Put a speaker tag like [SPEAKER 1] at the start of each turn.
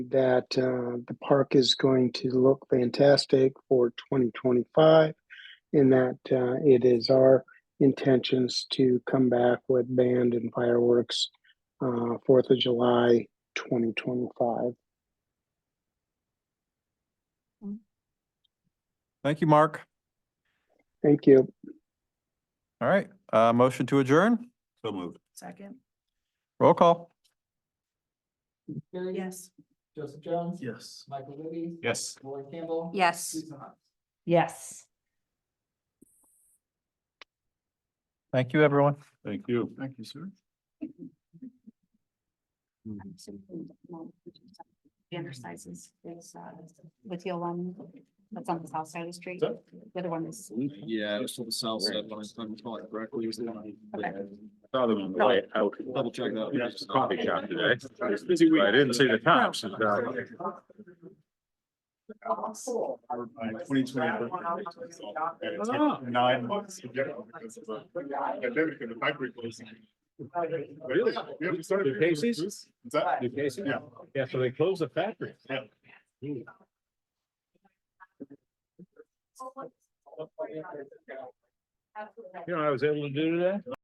[SPEAKER 1] that uh, the park is going to look fantastic for 2025 and that uh, it is our intentions to come back with band and fireworks uh, 4th of July 2025.
[SPEAKER 2] Thank you, Mark.
[SPEAKER 1] Thank you.
[SPEAKER 2] All right, uh, motion to adjourn,
[SPEAKER 3] So moved.
[SPEAKER 4] Second,
[SPEAKER 2] roll call.
[SPEAKER 5] Carrie?
[SPEAKER 4] yes.
[SPEAKER 5] Joseph Jones?
[SPEAKER 3] Yes.
[SPEAKER 5] Michael Libby?
[SPEAKER 3] Yes.
[SPEAKER 5] Lauren Campbell?
[SPEAKER 4] Yes.
[SPEAKER 5] Lisa Hunt?
[SPEAKER 4] Yes.
[SPEAKER 2] Thank you, everyone.
[SPEAKER 3] Thank you. Thank you, sir.
[SPEAKER 6] Banner sizes is, uh, with the one that's on the south side of the street.
[SPEAKER 3] That-
[SPEAKER 6] The other one is,
[SPEAKER 7] Yeah, it was from the south side, when I was talking about it correctly, it was the one.
[SPEAKER 3] Saw them on the way out.
[SPEAKER 7] Double check that.
[SPEAKER 3] Yeah, it's a Coffee shop today. I didn't see the cops. Twenty twenty. Nine months. Really? New cases? Is that? New cases? Yeah. Yeah, so they closed the factory. You know, what I was able to do today.